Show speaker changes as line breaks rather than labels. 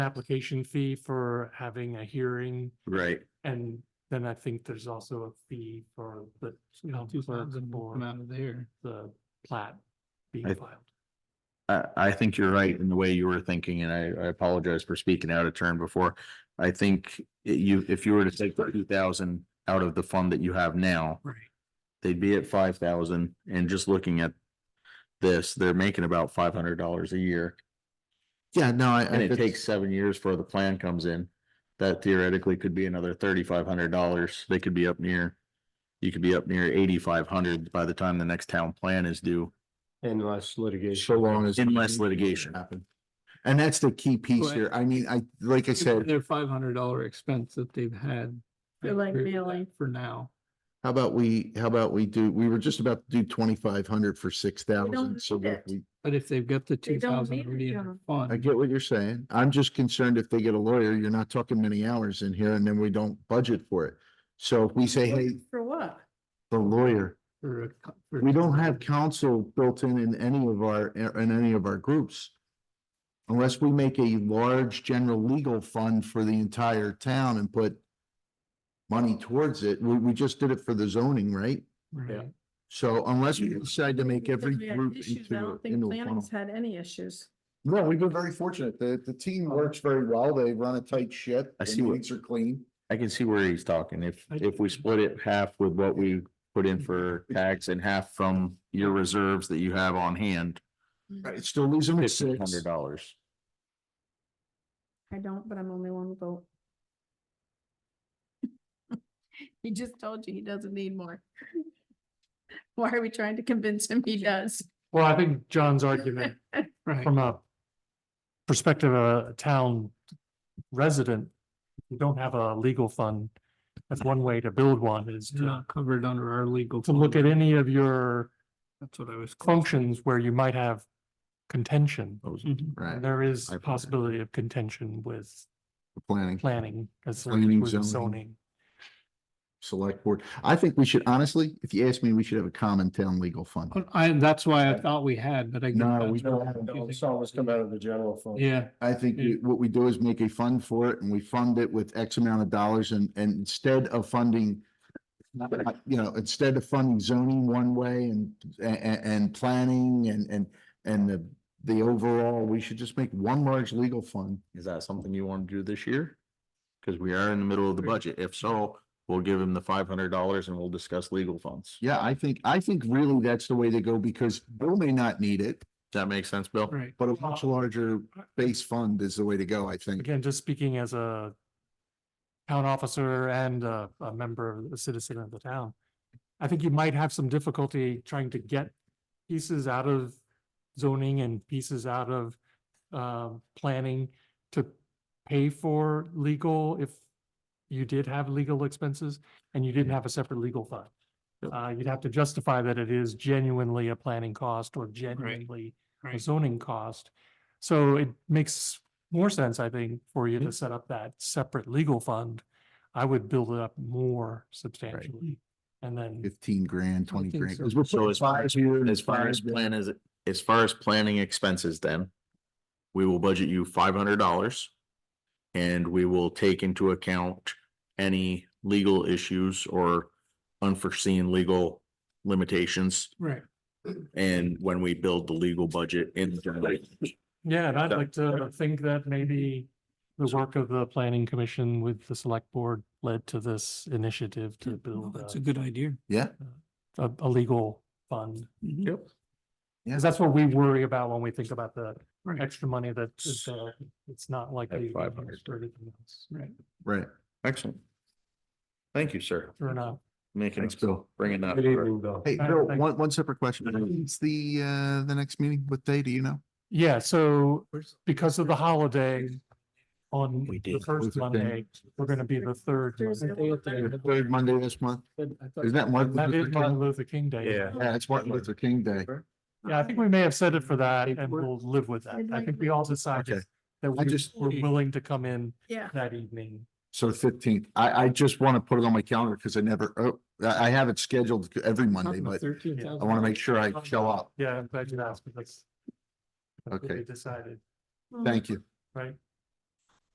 application fee for having a hearing.
Right.
And then I think there's also a fee for the town
Two
clerk
thousand will come
for
out of there.
the plat being
I-
filed.
I, I think you're right in the way you were thinking, and I, I apologize for speaking out of turn before. I think i- you, if you were to take the two thousand out of the fund that you have now.
Right.
They'd be at five thousand, and just looking at this, they're making about five hundred dollars a year.
Yeah, no, I. I-
And it
that's-
takes seven years before the plan comes in. That theoretically could be another thirty-five hundred dollars. They could be up near. You could be up near eighty-five hundred by the time the next town plan is due.
Unless
So
litigation.
long as.
Unless litigation.
happen. And that's the key piece
Right.
here. I mean, I, like I said,
Their five hundred dollar expense that they've had. I
For, like,
agree with that
mailing.
For now.
how about we, how about we do, we were just about to do twenty-five hundred for six thousand. So
need
if
it.
we-
But if they've got the
They
two
don't
thousand
need it,
already in their
John.
I
fund,
get what you're saying. I'm just concerned if they get a lawyer, you're not talking many hours in here and then we don't budget for it. So if we say, hey,
For what?
the lawyer,
for a co- for-
we don't have counsel built in in any of our, in any of our groups. Unless we make a large general legal fund for the entire town and put money towards it, we, we just did it for the zoning, right?
Right.
So unless we decide to make every
Because we had
group
issues. I
into,
don't
a-
think
into a funnel.
planning's had any issues.
No, we've been very fortunate. The, the team works very well. They run a tight ship.
I
The
see what-
meetings Are clean.
I can see where he's talking. If,
I-
if we split it half with what we put in for tax and half from your reserves that you have on hand,
Right, still losing at
fifteen
six.
hundred dollars.
I don't, but I'm only one vote. He just told you he doesn't need more. Why are we trying to convince him he does?
Well, I think John's argument
Right.
from a perspective of a town resident, you don't have a legal fund. That's one way to build one is
They're
to,
not covered under our legal.
to look at
fund.
any of your
That's what I was.
functions where you might have contention.
Mhm.
Right,
And there is
I-
a possibility of contention with
planning.
planning as well
Planning,
as with
zoning.
zoning.
select board. I think we should, honestly, if you ask me, we should have a common town legal fund.
But I, that's why I thought we had, but I. guess
No,
that's
we
why
don't
I'm
have it.
confusing.
It's always come out of the general fund.
Yeah,
I think
Yeah.
we- what we do is make a fund for it and we fund it with X amount of dollars and, and instead of funding, you know, instead of funding zoning one way and, and, and planning and, and, and the, the overall, we should just make one large legal fund.
Is that something you want to do this year? Cause we are in the middle of the
Sure.
budget. If so, we'll give him the five hundred dollars and we'll discuss legal funds.
Yeah, I think, I think really that's the way to go because Bill may not need it,
Does that make sense, Bill?
right.
but a much larger base fund is the way to go, I think.
Again, just speaking as a town officer and a, a member, a citizen of the town. I think you might have some difficulty trying to get pieces out of zoning and pieces out of um, planning to pay for legal if you did have legal expenses and you didn't have a separate legal fund. Uh, you'd have to justify that it is genuinely a planning cost or genuinely a
right.
zoning cost. So it makes more sense, I think, for you to set up that separate legal fund. I would build it up more substantially and then.
Fifteen grand, twenty
think
grand.
so.
'cause we're
So
putting
as far
five
as-
here and
As far
five
as
there.
plan is, as far as planning expenses then, we will budget you five hundred dollars. And we will take into account any legal issues or unforeseen legal limitations.
Right.
And when we build the legal budget in.
Yeah, and I'd
Yeah.
like to think that maybe the work of the planning commission with the select board led to this initiative to
Well,
build
That's a
a-
good idea.
Yeah,
a, a legal fund.
Mhm.
Yeah.
Because that's what we worry about when we think about the
Right.
extra money that is there. It's not likely. to be
500.
used for anything else.
right.
Excellent. Thank you, sir.
Sure enough.
Making,
Thanks, Bill.
bringing up.
Good evening, Bill.
Hey,
All right,
Bill,
thanks.
one, one separate question.
Mm-hmm.
When's the, uh, the next meeting? What day do you know?
Yeah, so
Where's-
because of the holiday on
We
the
did.
first
Who's the thing?
Monday, we're gonna be the third.
Thursday.
Monday.
Third Monday this month? Isn't that Martin
That
Luther
is Martin
King?
Luther King Day.
Yeah.
Yeah, it's Martin Luther King Day.
Yeah, I think we may have said it for that and
Paperwork.
we'll live with that. I think we all decided
Okay.
that
I
we
just-
were willing to come in
Yeah.
that evening.
So the fifteenth. I, I just want to put it on my calendar because I never, oh, I, I have it scheduled every Monday, but I want to make sure I show up.
Yeah, I'm glad you asked because that's what
Okay.
we decided,
Thank you.
right?